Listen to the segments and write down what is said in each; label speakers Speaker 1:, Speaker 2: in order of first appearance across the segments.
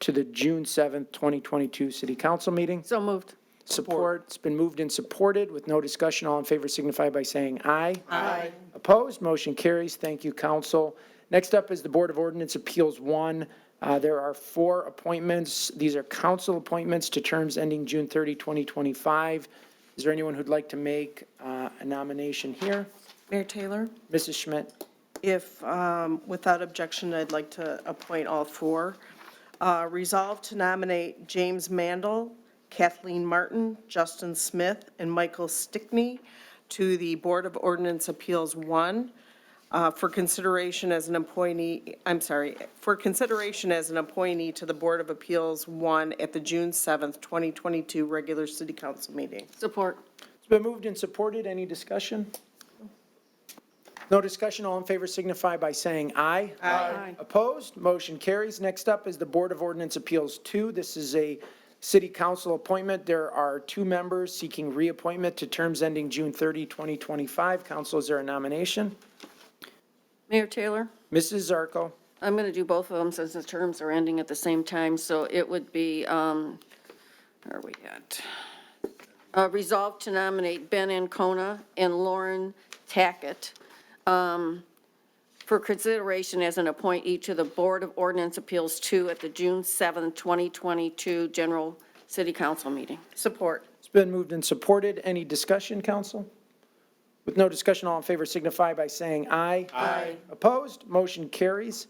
Speaker 1: to the June 7th, 2022 City Council meeting.
Speaker 2: So moved.
Speaker 1: Support. It's been moved and supported with no discussion. All in favor signify by saying aye.
Speaker 2: Aye.
Speaker 1: Opposed, motion carries. Thank you, council. Next up is the Board of Ordinance Appeals 1. Uh, There are four appointments. These are council appointments to terms ending June 30, 2025. Is there anyone who'd like to make uh, a nomination here?
Speaker 3: Mayor Taylor,
Speaker 1: Mrs. Schmidt?
Speaker 3: if, um, without objection, I'd like to appoint all four. Uh, Resolve to nominate James Mandel, Kathleen Martin, Justin Smith, and Michael Stickney to the Board of Ordinance Appeals 1 uh, for consideration as an appointee, I'm sorry, for consideration as an appointee to the Board of Appeals 1 at the June 7th, 2022 regular city council meeting.
Speaker 2: Support.
Speaker 1: It's been moved and supported. Any discussion? No discussion. All in favor signify by saying aye.
Speaker 2: Aye.
Speaker 1: Opposed? Motion carries. Next up is the Board of Ordinance Appeals 2. This is a city council appointment. There are two members seeking reappointment to terms ending June 30, 2025. Council, is there a nomination?
Speaker 2: Mayor Taylor,
Speaker 1: Mrs. Zarko.
Speaker 2: I'm going to do both of them since the terms are ending at the same time, so it would be, um, where are we at? Uh, Resolved to nominate Ben Ancona and Lauren Tackett um, for consideration as an appointee to the Board of Ordinance Appeals 2 at the June 7, 2022 General City Council meeting.
Speaker 3: Support.
Speaker 1: It's been moved and supported. Any discussion, council? With no discussion, all in favor signify by saying aye. Aye. Opposed, motion carries.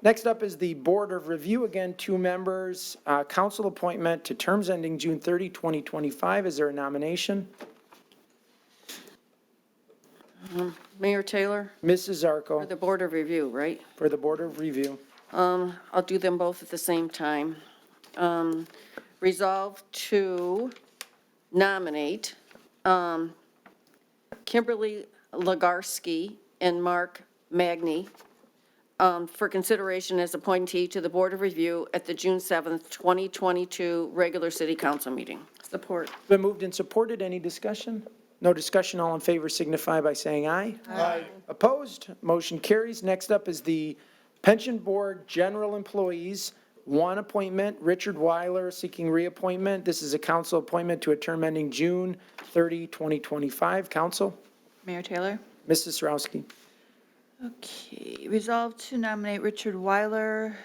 Speaker 1: Next up is the Board of Review, again, two members, uh, council appointment to terms ending June 30, 2025. Is there a nomination?
Speaker 2: Mayor Taylor,
Speaker 1: Mrs.
Speaker 2: for
Speaker 1: Zarko
Speaker 2: the Board of Review, right?
Speaker 1: for the Board of Review.
Speaker 2: Um, I'll do them both at the same time. Um, Resolve to nominate um, Kimberly Legarsky and Mark Magny um, for consideration as appointee to the Board of Review at the June 7th, 2022 regular city council meeting.
Speaker 3: Support.
Speaker 1: It's Been moved and supported. Any discussion? No discussion. All in favor signify by saying aye. Aye. Opposed? Motion carries. Next up is the Pension Board General Employees. One appointment, Richard Weiler seeking reappointment. This is a council appointment to a term ending June 30, 2025. Council,
Speaker 4: Mayor Taylor.
Speaker 1: Mrs. Sarowski.
Speaker 4: Okay, resolve to nominate Richard Weiler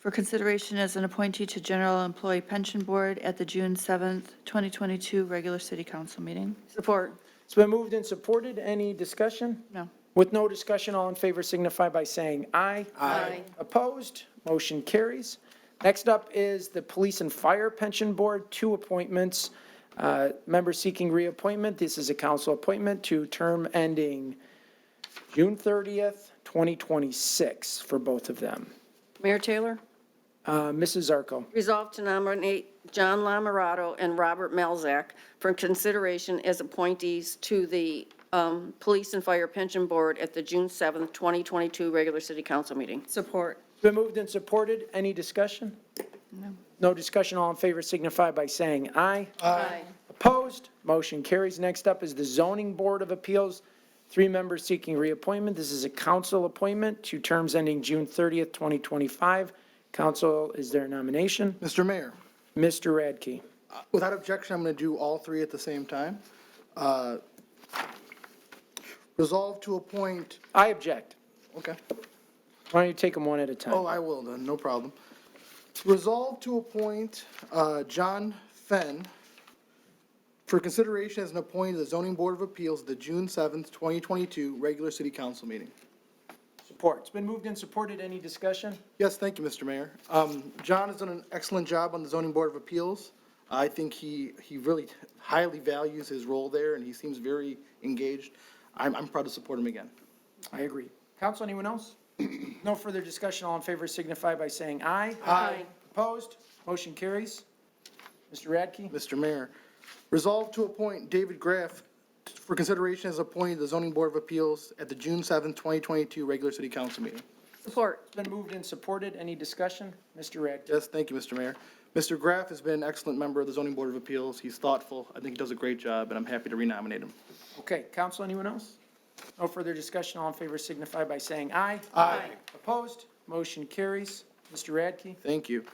Speaker 4: for consideration as an appointee to General Employee Pension Board at the June 7th, 2022 regular city council meeting.
Speaker 2: Support.
Speaker 1: It's been moved and supported. Any discussion?
Speaker 4: No.
Speaker 1: With no discussion, all in favor signify by saying aye.
Speaker 2: Aye.
Speaker 1: Opposed? Motion carries. Next up is the Police and Fire Pension Board, two appointments. Uh, Member seeking reappointment, this is a council appointment to term ending June 30th, 2026 for both of them.
Speaker 2: Mayor Taylor?
Speaker 1: Uh, Mrs. Zarko.
Speaker 2: Resolved to nominate John Lamorato and Robert Melzak for consideration as appointees to the um, Police and Fire Pension Board at the June 7th, 2022 regular city council meeting.
Speaker 3: Support.
Speaker 1: It's Been moved and supported. Any discussion? No. No discussion. All in favor signify by saying aye.
Speaker 2: Aye.
Speaker 1: Opposed? Motion carries. Next up is the Zoning Board of Appeals. Three members seeking reappointment. This is a council appointment, two terms ending June 30th, 2025. Council, is there a nomination?
Speaker 5: Mr. Mayor,
Speaker 1: Mr. Radke.
Speaker 5: without objection, I'm going to do all three at the same time. Uh, Resolve to appoint,
Speaker 1: I object.
Speaker 5: okay,
Speaker 1: Why don't you take them one at a time?
Speaker 5: oh, I will then, no problem. Resolve to appoint uh, John Fenn for consideration as an appointee to the Zoning Board of Appeals, at the June 7th, 2022 regular city council meeting.
Speaker 1: Support. It's been moved and supported. Any discussion?
Speaker 5: Yes, thank you, Mr. Mayor. Um, John has done an excellent job on the zoning board of appeals. I think he, he really highly values his role there, and he seems very engaged. I'm, I'm proud to support him again.
Speaker 1: I agree. Council, anyone else? No further discussion. All in favor signify by saying aye. Aye. Opposed? Motion carries. Mr. Radke?
Speaker 5: Mr. Mayor, resolve to appoint David Graff for consideration as appointed to the zoning board of appeals at the June 7th, 2022 regular city council meeting.
Speaker 2: Support.
Speaker 1: It's been moved and supported. Any discussion? Mr. Radke?
Speaker 5: Yes, thank you, Mr. Mayor. Mr. Graff has been an excellent member of the zoning board of appeals. He's thoughtful. I think he does a great job, and I'm happy to renominate him.
Speaker 1: Okay, council, anyone else? No further discussion, all in favor signify by saying aye. Aye. Opposed, motion carries. Mr. Radke?
Speaker 5: Thank you.